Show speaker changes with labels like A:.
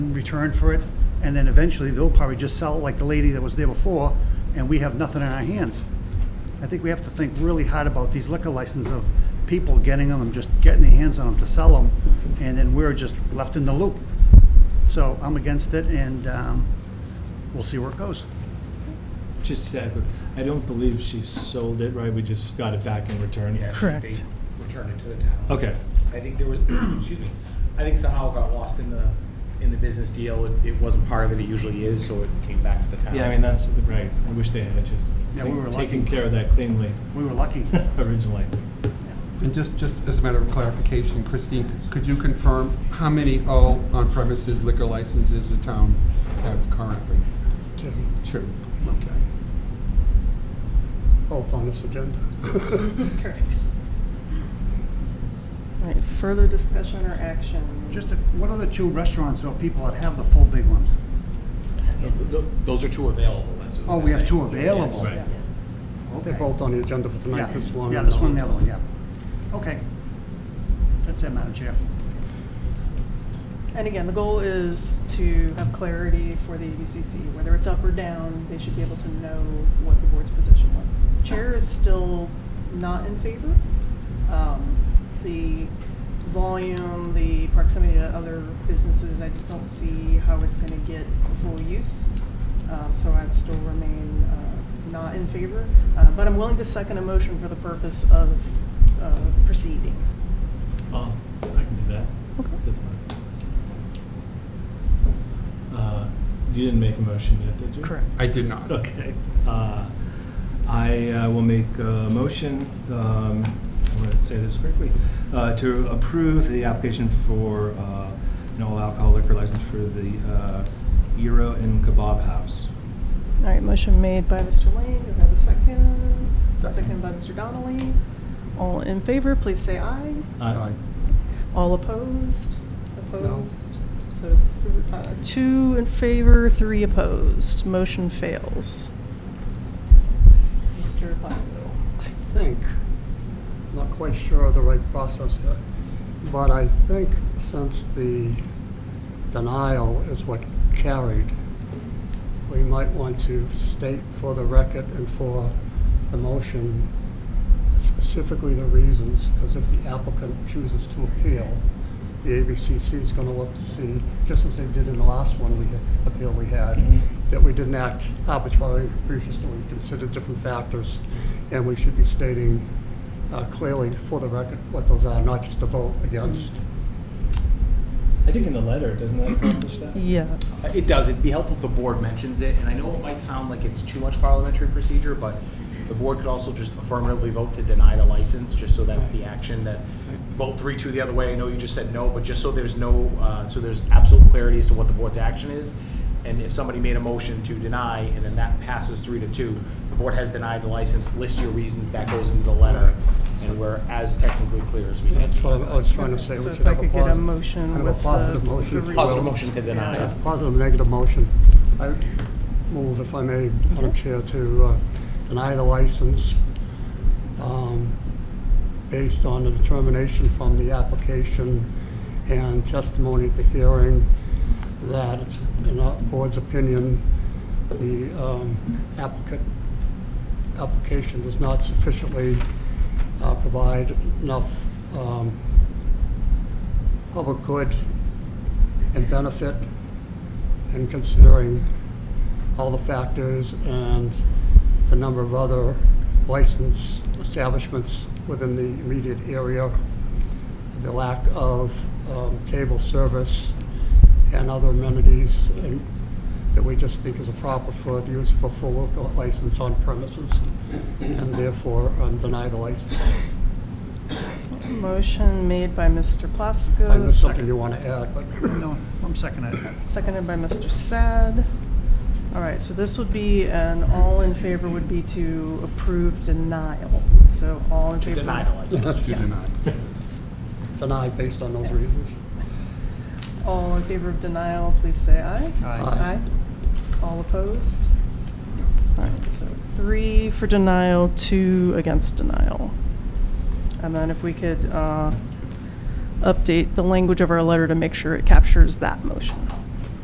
A: return for it, and then eventually they'll probably just sell it like the lady that was there before, and we have nothing in our hands. I think we have to think really hard about these liquor licenses of people getting them and just getting their hands on them to sell them, and then we're just left in the loop. So I'm against it, and um, we'll see where it goes.
B: Just, uh, I don't believe she sold it, right? We just got it back in return.
C: Yeah,
D: Correct.
C: They returned it to the town.
B: Okay.
C: I think there was, excuse me, I think somehow it got lost in the, in the business deal. It- It wasn't part of it, it usually is, so it came back to the town.
B: Yeah, I mean, that's, Um, right. I wish they had just
A: Yeah, we were lucky.
B: taken care of that cleanly
A: We were lucky.
B: originally.
E: And just, just as a matter of clarification, Christine, could you confirm how many all on-premises liquor licenses the town have currently?
F: Two,
E: Two, okay.
F: both on this agenda.
G: Correct. All right, further discussion or action?
A: Just, a- what are the two restaurants or people that have the full big ones?
C: Th- th- Those are two available, that's what
A: Oh,
C: they're
A: we have
C: saying.
A: two available.
B: Right.
F: They're
A: Okay.
F: both on the agenda for
A: Yeah,
F: tonight, this one.
A: Yeah,
F: and
A: this
F: the
A: one and the
F: other.
A: other one, yeah. Okay. That's it, Madam Chair.
G: And again, the goal is to have clarity for the ABCC, whether it's up or down, they should be able to know what the board's position was. Chair is still not in favor. Um, The volume, the proximity to other businesses, I just don't see how it's gonna get full use. Um, So I would still remain uh, not in favor, Uh, but I'm willing to second a motion for the purpose of uh, proceeding.
B: Um, I can do that. Okay. That's fine. Uh, You didn't make a motion yet, did you?
D: Correct.
E: I did not.
B: Okay. Uh, I uh, will make a motion, um, I want to say this correctly, uh, to approve the application for uh, an all alcohol liquor license for the uh, Euro and Kebab House.
G: All right, motion made by Mr. Lane, do I have a second?
E: Second.
G: Second by Mr. Donnelly. All in favor, please say aye.
B: Uh,
E: Aye.
G: All opposed? Opposed? So th- uh, two in favor, three opposed. Motion fails. Mr. Plasko.
F: I think, I'm not quite sure of the right process here, but I think since the denial is what carried, we might want to state for the record and for the motion specifically the reasons, because if the applicant chooses to appeal, the ABCC is going to look to see, just as they did in the last one we, appeal we had,
G: Mm-hmm.
F: that we didn't act arbitrarily and capriciously, we considered different factors, and we should be stating uh, clearly for the record what those are, not just a vote against.
G: Mm-hmm.
B: I think in the letter, doesn't that accomplish that?
D: Yes.
C: It does, it'd be helpful if the board mentions it, and I know it might sound like it's too much parliamentary procedure, but the board could also just affirmatively vote to deny the license, just so that's the action that, vote three, two the other way, I know you just said no, but just so there's no, uh, so there's absolute clarity as to what the board's action is, and if somebody made a motion to deny, and then that passes three to two, the board has denied the license, list your reasons, that goes into the letter, and we're as technically clear as we can.
F: That's what I was trying to say,
G: So
F: we
G: if
F: should
G: I
F: have a
G: could get a
F: posi-
G: motion
F: kind of
G: with
F: a
G: the-
F: positive
G: the
F: motion. if you will.
C: Positive motion to deny.
F: A Positive, negative motion. I move, if I may, Madam Chair, to uh, deny the license um, based on the determination from the application and testimony at the hearing that, it's in our board's opinion, the um, applicant, application does not sufficiently uh, provide enough um, public good and benefit and considering all the factors and the number of other licensed establishments within the immediate area, the lack of um, table service and other amenities and- that we just think is improper for the use of a full liquor license on premises, and therefore um, deny the license.
G: Motion made by Mr. Plasko.
F: I know something you want to add, but
A: No, I'm seconding it.
G: Seconded by Mr. Sad. All right, so this would be, an all in favor would be to approve denial. So all in
C: To
G: favor.
C: deny the license.
E: To deny.
F: deny based on those reasons.
G: All in favor of denial, please say aye.
F: Aye.
G: All opposed? All right, so three for denial, two against denial. And then if we could uh, update the language of our letter to make sure it captures that motion.